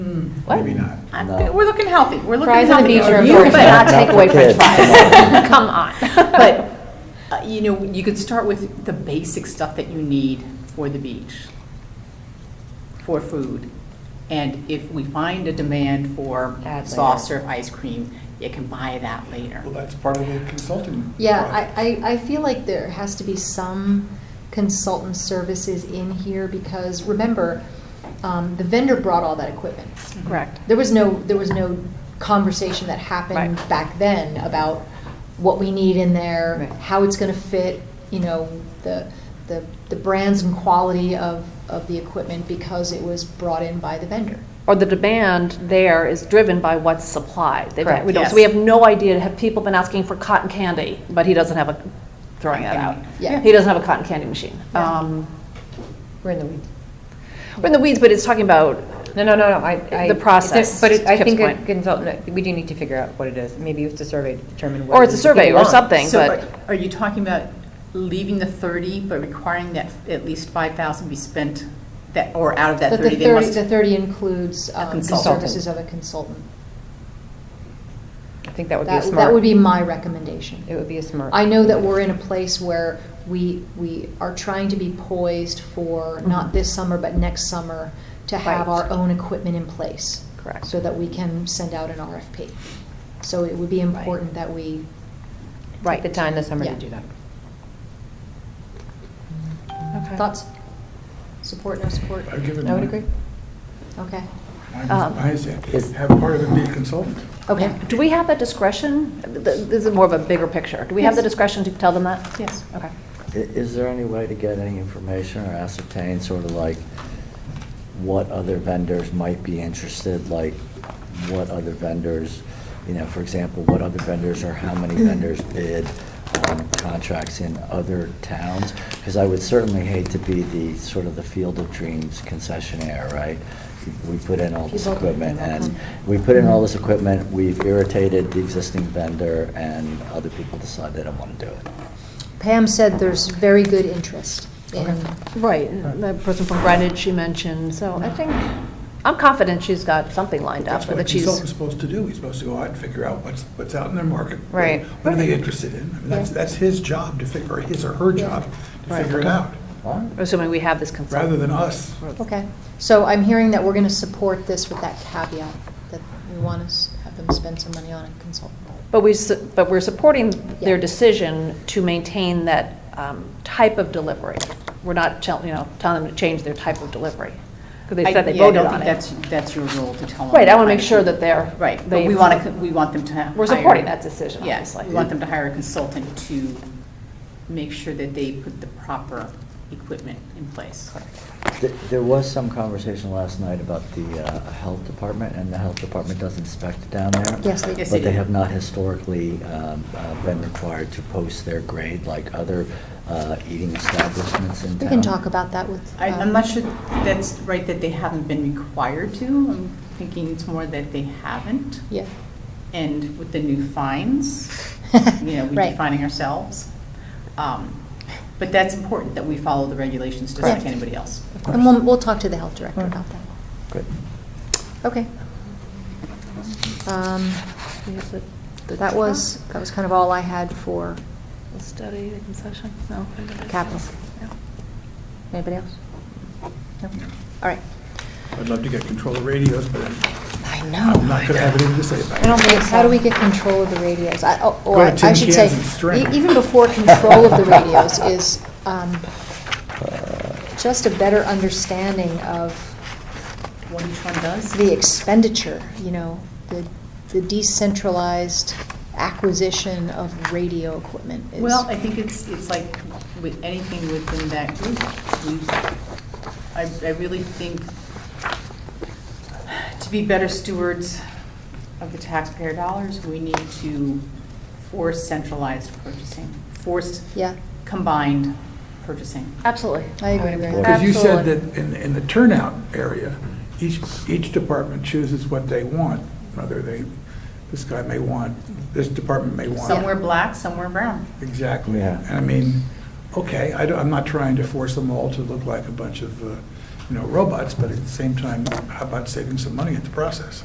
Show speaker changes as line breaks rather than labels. What?
Maybe not.
I'm
No.
good. We're looking healthy. We're looking
Fries
healthy.
on the beach are
You
important.
better not
Not
take
for
away French
kids.
fries. Come on. But,
But
uh, you know, you could start with the basic stuff that you need for the beach, for food. And if we find a demand for
Add
soft
later.
serve ice cream, you can buy that later.
Well, that's part of the consulting.
Yeah,
project.
I, I, I feel like there has to be some consultant services in here because remember, um, the vendor brought all that equipment.
Correct.
There was no, there was no conversation that happened
Right.
back then about what we need in there,
Right.
how it's gonna fit, you know, the, the, the brands and quality of, of the equipment because it was brought in by the vendor.
Or the demand there is driven by what's supplied. They-
Correct,
we don't-
yes.
So we have no idea, have people been asking for cotton candy, but he doesn't have a, throwing that out.
Cotton
candy. Yeah.
He doesn't have a cotton candy machine. Um,
We're in the weeds.
We're in the weeds, but it's talking about,
No, no, no, no, I. I-
The process,
But it- I
Kip's
think a
point.
consultant, we do need to figure out what it is. Maybe it's a survey to determine what.
or it's a survey or something,
So
but.
are- are you talking about leaving the 30, but requiring that at least 5,000 be spent, that, or out of that
But the
30, they
thirty,
must?
the thirty includes, um, the
consultant.
services of a consultant.
I think that would be a
That,
smart.
that would be my recommendation.
It would be a smart.
I know that we're in a place where we, we are trying to be poised for,
Mm-hmm.
not this summer, but next summer, to have our
Right.
own equipment in place.
Correct.
So that we can send out an RFP. So it would be important that we,
Take the time this summer to
Yeah.
do that.
Okay.
thoughts? Support, no support?
I've given.
I would
my-
agree.
Okay,
my-
Um,
my say,
is-
Have part of it be a consultant.
okay.
Do we have that discretion? Th- This is more of a bigger picture. Do we have the
Yes.
discretion to tell them that?
Yes.
Okay.
I- Is there any way to get any information or ascertain sort of like what other vendors might be interested, like what other vendors, you know, for example, what other vendors or how many vendors bid on contracts in other towns? Because I would certainly hate to be the, sort of the Field of Dreams concessionaire, right? We put in all this
People-
equipment and we put in all this equipment, we've irritated the existing vendor and other people decide they don't want to do it.
Pam said there's very good interest in,
Right, the person from Greenwich she mentioned, so I think, I'm confident she's got something lined up,
That's what a
that she's.
consultant's supposed to do. He's supposed to go out and figure out what's, what's out in their market. What-
Right.
What are they interested in? I mean, That's,
Yeah.
that's his job to figure, or his or her
Yeah.
job to
Right.
figure it out,
Assuming we have this
rather
consultant.
than us.
okay. So I'm hearing that we're gonna support this with that caveat, that we want to have them spend some money on a consultant.
But we, su- but we're supporting their
Yeah.
decision to maintain that um, type of delivery. We're not, tell- you know, telling them to change their type of delivery, because they
I-
said they
yeah, I
voted
don't
on
think
it.
That's, that's your role to tell them.
Right, I want
that
to
kind
make
of
sure
thing.
that they're.
Right, but
they-
we want to, we want them to have.
We're supporting that decision,
Yes,
obviously.
we want them to hire a consultant to make sure that they put the proper equipment in place.
Th- There was some conversation last night about the uh, health department, and the health department does inspect down there.
Yes, they
Yes,
But
they
they
do.
have not historically um, uh, been required to post their grade like other uh, eating establishments in town.
We can talk about that with.
I,
um,
I'm not sure that's right, that they haven't been required to. I'm thinking it's more that they haven't.
Yeah.
And with the new fines, you know, we're
Right.
defining ourselves. Um, But that's important, that we follow the regulations just like
Correct.
anybody else.
And we'll, we'll talk to the health director about that.
Good.
Okay. Um,
We have the- the
That was,
truck,
that was kind of all I had for,
the Study, the concession, no.
Capital.
Yeah.
anybody else? No? All right.
I'd love to get control of radios, but I'm
I
I'm not going to have anything to say about it.
I don't think
How do we get control of the radios? I, oh,
Go
or
to
I
tin
should say,
cans and string.
e- even before control of the radios is, um,
Uh,
just a better understanding of
What each one does?
the expenditure, you know, the, the decentralized acquisition of radio equipment is.
Well, I think it's, it's like with anything within that group, we, I, I really think to be better stewards of the taxpayer dollars, we need to force centralized purchasing, forced
Yeah,
combined purchasing.
Absolutely.
I agree with
Well,
that.
Because you said
Absolutely.
that in, in the turnout area, each, each department chooses what they want, whether they, this guy may want, this department may want.
Somewhere black, somewhere brown.
Exactly.
Yeah.
And I mean, okay, I don't, I'm not trying to force them all to look like a bunch of, uh, you know, robots, but at the same time, how about saving some money in the process?